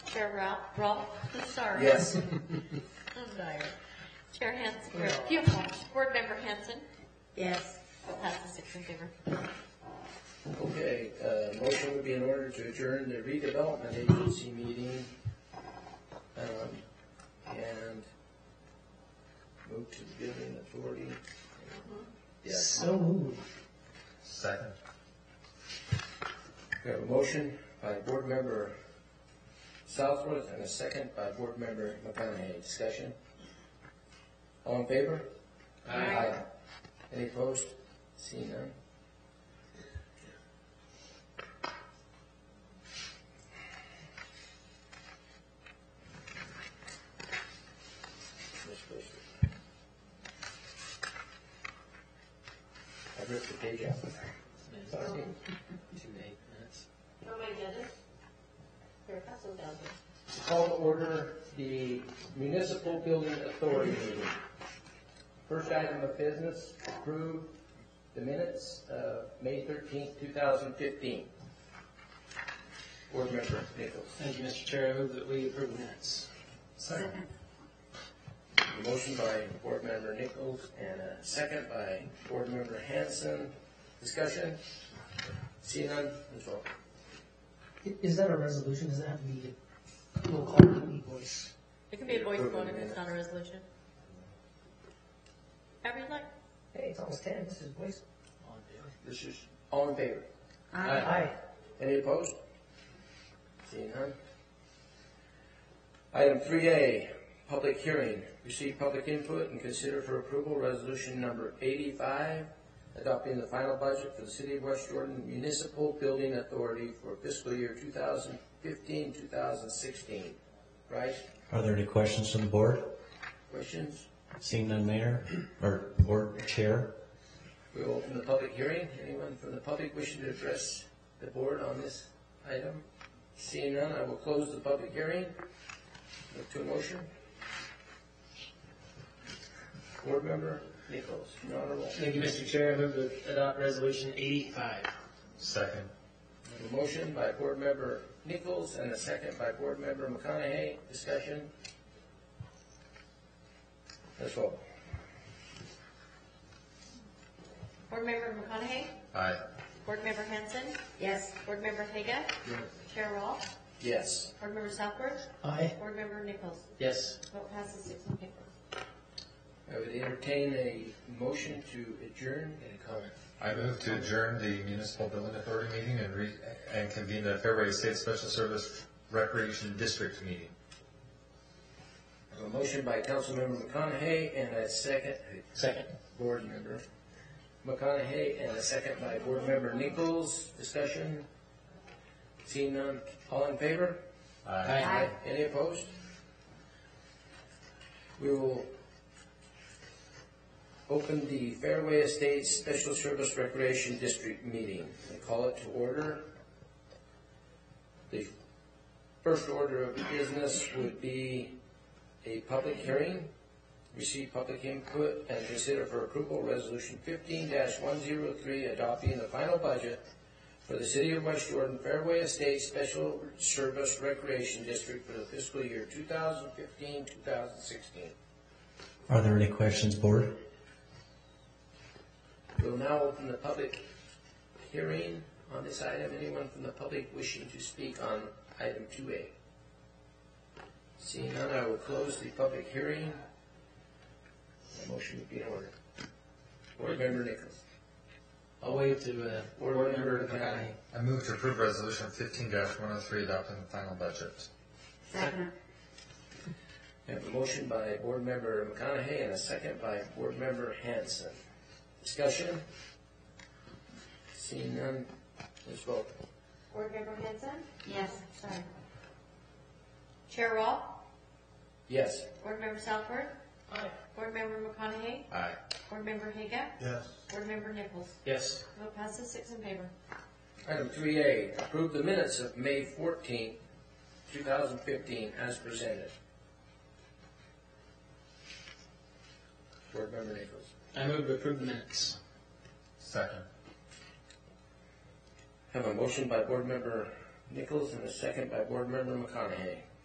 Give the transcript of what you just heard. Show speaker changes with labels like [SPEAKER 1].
[SPEAKER 1] Chair Ralph, Ralph, I'm sorry.
[SPEAKER 2] Yes.
[SPEAKER 1] I'm tired. Chair Hanson, or Pupil, Board Member Hanson,
[SPEAKER 3] Yes.
[SPEAKER 1] passes six in favor.
[SPEAKER 2] Okay, uh, motion would be in order to adjourn the redevelopment agency meeting, um, and move to the building authority. Yes.
[SPEAKER 4] So moved. Second.
[SPEAKER 2] We have a motion by Board Member Southworth and a second by Board Member McConaughey. Discussion? All in favor? Aye. Any opposed? Seeing none? Ms. Brewster. I ripped the page out. Sorry. Too late, that's.
[SPEAKER 1] Nobody did it? Here, pass them down.
[SPEAKER 2] Call to order the Municipal Building Authority meeting. First item of business, approve the minutes of May thirteenth, two thousand fifteen. Board Member Nichols.
[SPEAKER 5] Thank you, Mr. Chair. I move that we approve the minutes.
[SPEAKER 4] Second.
[SPEAKER 2] A Motion by Board Member Nichols and a second by Board Member Hanson. Discussion? See none, Ms. Walker.
[SPEAKER 4] I- Is that a resolution? Does it have to be a roll call or an e-voice?
[SPEAKER 1] It can be a voice vote if it's not a resolution. However you like.
[SPEAKER 4] Hey, it's almost ten. This is voice.
[SPEAKER 2] This is. All in favor? Any opposed? Seeing none. Item three A, public hearing. Receive public input and consider for approval resolution number eighty-five, adopting the final budget for the City of West Jordan Municipal Building Authority for fiscal year 2015-2016. Bryce,
[SPEAKER 6] Are there any questions from the board?
[SPEAKER 2] questions?
[SPEAKER 6] Seeing none, Mayor, or Board Chair?
[SPEAKER 2] We will open the public hearing. Anyone from the public wishing to address the board on this item? Seeing none, I will close the public hearing. Look to a motion. Board member Nichols, you're honorable.
[SPEAKER 5] Thank you, Mr. Chair. I move to adopt resolution eighty-five.
[SPEAKER 4] Second.
[SPEAKER 2] A motion by board member Nichols and a second by board member McConaughey. Discussion? Let's vote.
[SPEAKER 1] Board Member McConaughey,
[SPEAKER 4] Aye.
[SPEAKER 1] Board Member Hanson,
[SPEAKER 3] Yes.
[SPEAKER 1] Board Member Haga, Chair Ralph,
[SPEAKER 2] Yes.
[SPEAKER 1] Board Member Southworth,
[SPEAKER 4] Aye.
[SPEAKER 1] Board Member Nichols.
[SPEAKER 5] Yes.
[SPEAKER 1] Vote passes six in favor.
[SPEAKER 2] I would entertain a motion to adjourn. Any comment?
[SPEAKER 7] I move to adjourn the municipal building authority meeting and re, and convene the February State Special Service Recreation District meeting.
[SPEAKER 2] A motion by Councilmember McConaughey and a second,
[SPEAKER 5] Second.
[SPEAKER 2] Board Member McConaughey and a second by Board Member Nichols. Discussion? Seeing none, all in favor?
[SPEAKER 5] Aye.
[SPEAKER 2] Any opposed? We will open the Fairway Estates Special Service Recreation District meeting and call it to order. The first order of business would be a public hearing, receive public input, and consider for approval Resolution fifteen one zero three, adopting the final budget for the City of West Jordan Fairway Estates Special Service Recreation District for the fiscal year 2015, 2016.
[SPEAKER 6] Are there any questions, Board?
[SPEAKER 2] We'll now open the public hearing on this item. Anyone from the public wishing to speak on item 2A? Seeing none, I will close the public hearing. The motion would be in order. Board Member Nichols.
[SPEAKER 5] I'll waive to, uh,
[SPEAKER 2] Board Member McConaughey.
[SPEAKER 7] I move to approve resolution fifteen one oh three adopting the final budget.
[SPEAKER 3] Second.
[SPEAKER 2] I have a motion by Board Member McConaughey and a second by Board Member Hanson. Discussion? Seeing none, let's vote.
[SPEAKER 1] Board Member Hanson,
[SPEAKER 3] Yes.
[SPEAKER 1] sorry. Chair Ralph,
[SPEAKER 2] Yes.
[SPEAKER 1] Board Member Southworth. Board Member McConaughey,
[SPEAKER 7] Aye.
[SPEAKER 1] Board Member Haga,
[SPEAKER 4] Yes.
[SPEAKER 1] Board Member Nichols.
[SPEAKER 5] yes.
[SPEAKER 1] Vote passes six in favor.
[SPEAKER 2] Item three A, approve the minutes of May fourteenth, two thousand fifteen, as presented. Board Member Nichols.
[SPEAKER 5] I move to approve the minutes.
[SPEAKER 7] Second.
[SPEAKER 2] Have a motion by Board Member Nichols and a second by Board Member McConaughey.